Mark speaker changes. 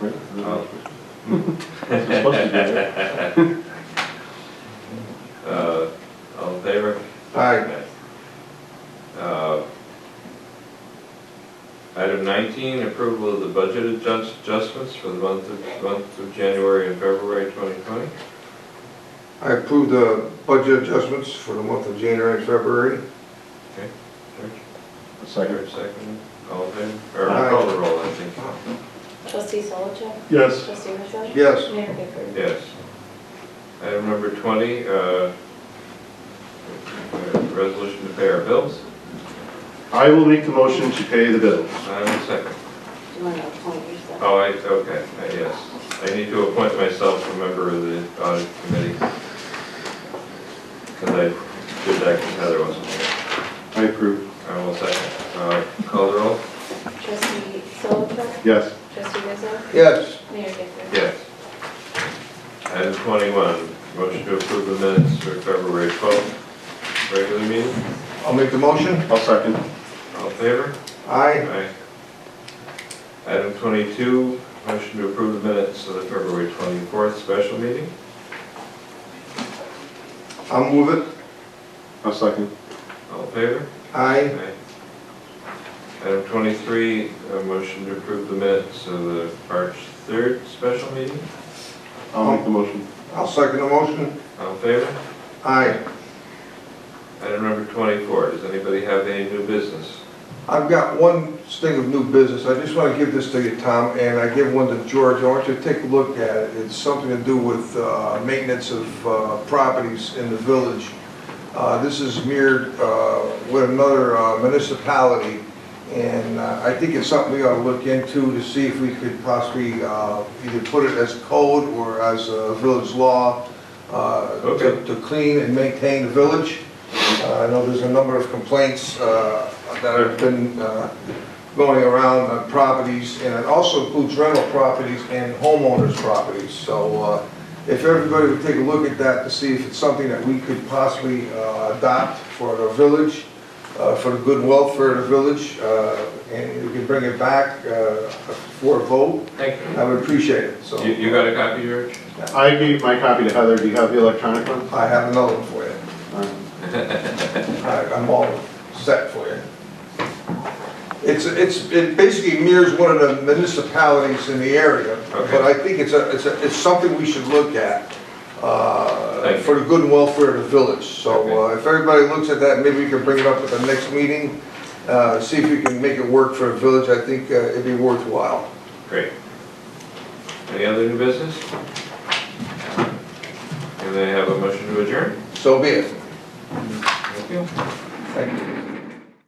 Speaker 1: Right.
Speaker 2: Oh.
Speaker 1: That's supposed to be there.
Speaker 2: Uh, all in favor?
Speaker 3: Aye.
Speaker 2: Uh, Item nineteen, approval of the budget adjust- adjustments for the month of, month of January and February twenty twenty.
Speaker 3: I approve the budget adjustments for the month of January and February.
Speaker 1: Second.
Speaker 2: Second, all in favor? Or
Speaker 3: Aye.
Speaker 2: call the roll, I think.
Speaker 4: Trustee Solichak?
Speaker 1: Yes.
Speaker 4: Trustee Rizzo?
Speaker 3: Yes.
Speaker 4: Mayor Gifford?
Speaker 2: Yes. Item number twenty, uh, uh, resolution to pay our bills.
Speaker 5: I will make the motion to pay the bills.
Speaker 2: I have a second.
Speaker 4: Do you want to appoint yourself?
Speaker 2: Oh, I, okay, I yes. I need to appoint myself a member of the audit committee. Because I did that because Heather wasn't here.
Speaker 5: I approve.
Speaker 2: I will second. Uh, Call the roll?
Speaker 4: Trustee Solichak?
Speaker 5: Yes.
Speaker 4: Trustee Rizzo?
Speaker 3: Yes.
Speaker 4: Mayor Gifford?
Speaker 2: Yes. Item twenty-one, motion to approve the minutes for February twelfth, regular meeting.
Speaker 3: I'll make the motion.
Speaker 5: I'll second.
Speaker 2: All in favor?
Speaker 3: Aye.
Speaker 2: Aye. Item twenty-two, motion to approve the minutes of the February twenty-fourth special meeting.
Speaker 3: I'll move it.
Speaker 5: I'll second.
Speaker 2: All in favor?
Speaker 3: Aye.
Speaker 2: Aye. Item twenty-three, a motion to approve the minutes of the March third special meeting.
Speaker 5: I'll make the motion.
Speaker 3: I'll second the motion.
Speaker 2: All in favor?
Speaker 3: Aye.
Speaker 2: Item number twenty-four, does anybody have any new business?
Speaker 3: I've got one thing of new business. I just want to give this to you, Tom, and I give one to George. I want you to take a look at it. It's something to do with uh, maintenance of uh, properties in the village. Uh, This is mirrored uh, with another uh, municipality, and uh, I think it's something we ought to look into to see if we could possibly uh, either put it as code or as a village law uh,
Speaker 2: Okay.
Speaker 3: to to clean and maintain the village. Uh, I know there's a number of complaints uh, that have been uh, going around on properties, and it also includes rental properties and homeowners' properties. So uh, if everybody would take a look at that to see if it's something that we could possibly uh, adopt for the village, uh, for the good welfare of the village, uh, and we could bring it back uh, for a vote,
Speaker 2: Thank you.
Speaker 3: I would appreciate it. So
Speaker 2: You, you got a copy, George?
Speaker 5: I gave my copy to Heather. Do you have the electronic one?
Speaker 3: I have another one for you. I- I'm all set for you. It's, it's, it basically mirrors one of the municipalities in the area,
Speaker 2: Okay.
Speaker 3: but I think it's a, it's a, it's something we should look at, uh,
Speaker 2: Thank you.
Speaker 3: for the good and welfare of the village. So, uh, if everybody looks at that, maybe we can bring it up at the next meeting, uh, see if we can make it work for the village, I think uh, it'd be worthwhile.
Speaker 2: Great. Any other new business? Can I have a motion to adjourn?
Speaker 3: So be it,
Speaker 2: Thank you.
Speaker 3: thank you.